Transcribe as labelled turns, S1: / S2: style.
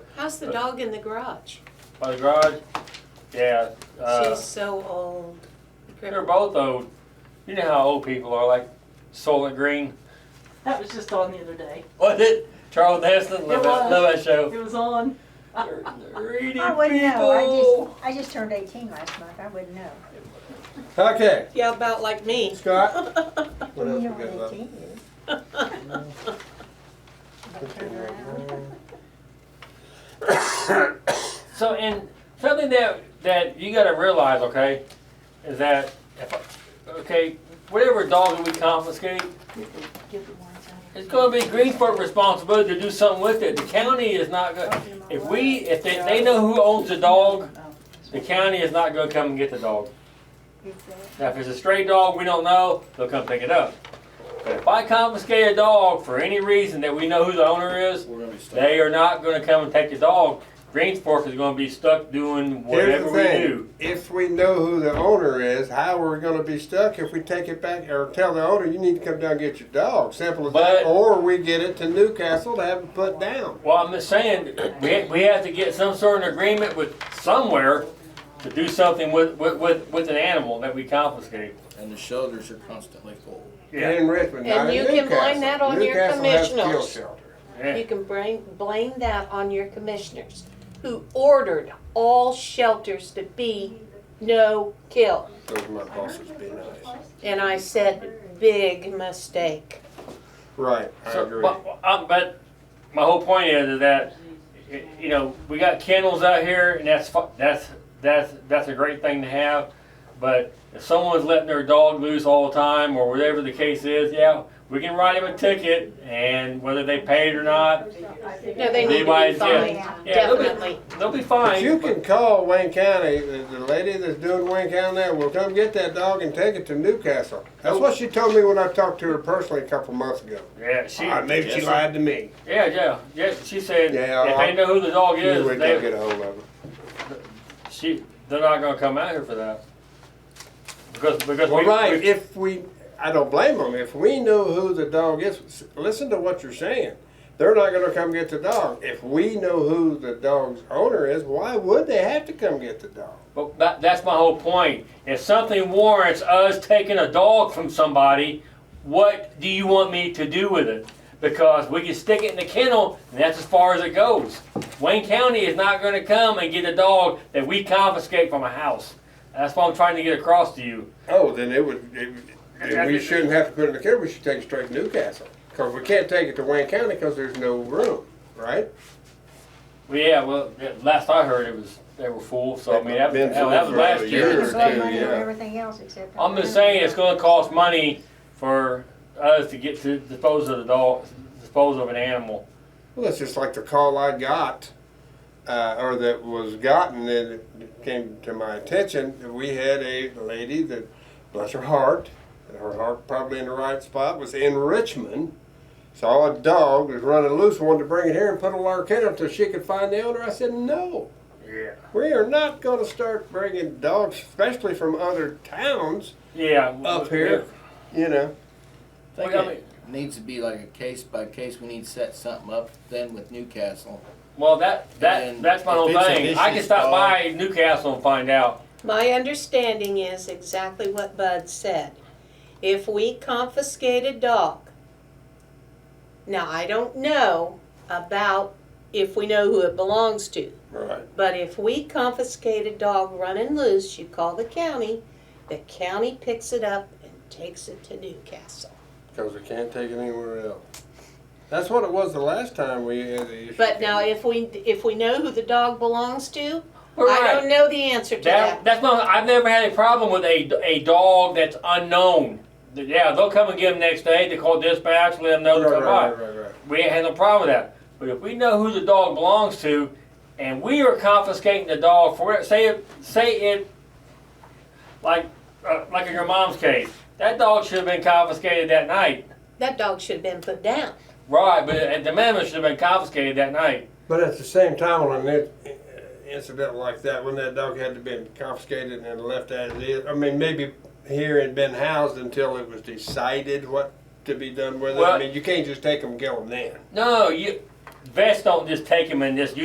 S1: How's
S2: Uh,
S1: the dog in the garage?
S2: My garage, yeah, uh,
S1: She's so old.
S2: they're both old. You know how old people are, like Soylent Green.
S3: That was just on the other day.
S2: Was it? Charles Heston, love that,
S3: It was.
S2: love that show.
S3: It was on.
S2: They're greedy
S4: I wouldn't know,
S2: people.
S4: I just, I just turned eighteen last month, I wouldn't know.
S5: Okay,
S1: Yeah, about like me.
S5: Scott,
S4: You
S5: what else we
S4: know
S5: got
S4: what
S5: left?
S4: 18 is.
S2: So, and something that that you got to realize, okay, is that if, okay, whatever dog that we confiscate,
S3: Get the ones out.
S2: it's going to be Greensport responsibility to do something with it. The county is not going. If we, if they, they know who owns the dog, the county is not going to come and get the dog.
S4: uh,
S2: Now, if it's a stray dog we don't know, they'll come pick it up. But if I confiscate a dog for any reason that we know who the owner is,
S5: We're gonna be stuck.
S2: they are not going to come and take the dog. Greensport is going to be stuck doing
S5: Here's
S2: whatever
S5: the
S2: we
S5: thing,
S2: do.
S5: if we know who the owner is, how are we gonna be stuck if we take it back or tell the owner, you need to come down and get your dog, simple as
S2: But-
S5: that, or we get it to Newcastle to have it put down.
S2: Well, I'm just saying, we, we have to get some sort of agreement with somewhere to do something with, with, with, with an animal that we confiscate.
S6: and the shelters are constantly full.
S5: In Richmond, not
S1: And
S5: in
S1: you can blame
S5: Newcastle.
S1: that on your
S5: Newcastle has kill
S1: commissioners.
S5: shelter.
S2: yeah.
S1: You can blame, blame that on your commissioners who ordered all shelters to be no kill.
S5: Those are my bosses, be nice.
S1: And I said, big mistake.
S5: Right, I
S2: So,
S5: agree.
S2: but, um, but my whole point is, is that y- you know we got kennels out here, and that's fu- that's that's that's a great thing to have. But if someone's letting their dog loose all the time, or whatever the case is, yeah, we can write them a ticket, and whether they pay it or not,
S1: No, they need to
S2: Levi's,
S1: be
S2: yeah.
S1: fined,
S2: Yeah, they'll be-
S1: definitely.
S2: they'll be fine.
S5: But you can call Wayne County, the, the lady that's doing Wayne County now, will come get that dog and take it to Newcastle. That's what she told me when I talked to her personally a couple months ago.
S2: Yeah, she.
S5: Ah, maybe she
S6: Yes.
S5: lied to me.
S2: Yeah, yeah, yeah. She said
S5: Yeah,
S2: if
S5: I-
S2: they know who the dog
S5: You
S2: is,
S5: would go
S2: they,
S5: get a hold of her.
S2: she they're not gonna come out here for that. Because because
S5: Well,
S2: we,
S5: right,
S2: we-
S5: if we, I don't blame them, if we know who the dog is, s- listen to what you're saying. They're not gonna come get the dog. If we know who the dog's owner is, why would they have to come get the dog?
S2: But that, that's my whole point. If something warrants us taking a dog from somebody, what do you want me to do with it? Because we can stick it in the kennel, and that's as far as it goes. Wayne County is not going to come and get a dog that we confiscate from a house. That's what I'm trying to get across to you.
S5: Oh, then it would, it- then we shouldn't have to put it in the kennel, we should take it straight to Newcastle. Cause we can't take it to Wayne County, cause there's no room, right?
S2: Well, yeah, well, yeah, last I heard, it was they were full. So I mean, that,
S5: Been
S2: that, that was
S5: full for
S2: last
S5: a
S2: year.
S5: year.
S4: They can blow
S5: too,
S4: money on
S5: yeah.
S4: everything else except. for
S2: I'm just
S4: the-
S2: saying it's gonna cost money for us to get to dispose of the dog, dispose of an animal.
S5: Well, it's just like the call I got, uh, or that was gotten, and it came to my attention. that We had a lady that, bless her heart, and her heart probably in the right spot, was in Richmond. Saw a dog was running loose, wanted to bring it here and put it in our kennel until she could find the owner. I said, no,
S2: Yeah.
S5: we are not going to start bringing dogs, especially from other towns,
S2: Yeah.
S5: up here. You know,
S6: I think
S2: Well, I
S6: it needs to be like a case by case. We need to set something up then with Newcastle.
S2: Well, that that
S6: And
S2: that's my
S6: if
S2: whole
S6: it's a
S2: thing. I can
S6: vicious
S2: stop
S6: dog-
S2: by Newcastle and find out.
S1: My understanding is exactly what Bud said. If we confiscate a dog, now I don't know about if we know who it belongs to,
S5: right?
S1: but if we confiscate a dog running loose, you call the county, the county picks it up and takes it to Newcastle.
S5: Because we can't take it anywhere else. That's what it was the last time we had the issue.
S1: But now if we, if we know who the dog belongs to,
S2: Right.
S1: I don't know the answer to that.
S2: That, that's my. I've never had a problem with a, a dog that's unknown. Yeah, they'll come and get them next day. They call dispatch, let them know to
S5: Right,
S2: come by.
S5: right, right, right.
S2: We ain't had no problem with that. But if we know who the dog belongs to, and we are confiscating the dog for it, say it, say it, like uh, like in your mom's case, that dog should have been confiscated that night.
S1: That dog should have been put down.
S2: Right, but at the minimum, it should have been confiscated that night.
S5: But at the same time, on an in- incident like that, when that dog had to been confiscated and left as is, I mean, maybe here it had been housed until it was decided what to be done with it.
S2: Well-
S5: I mean, you can't just take them and kill them then.
S2: No, you vets don't just take him and just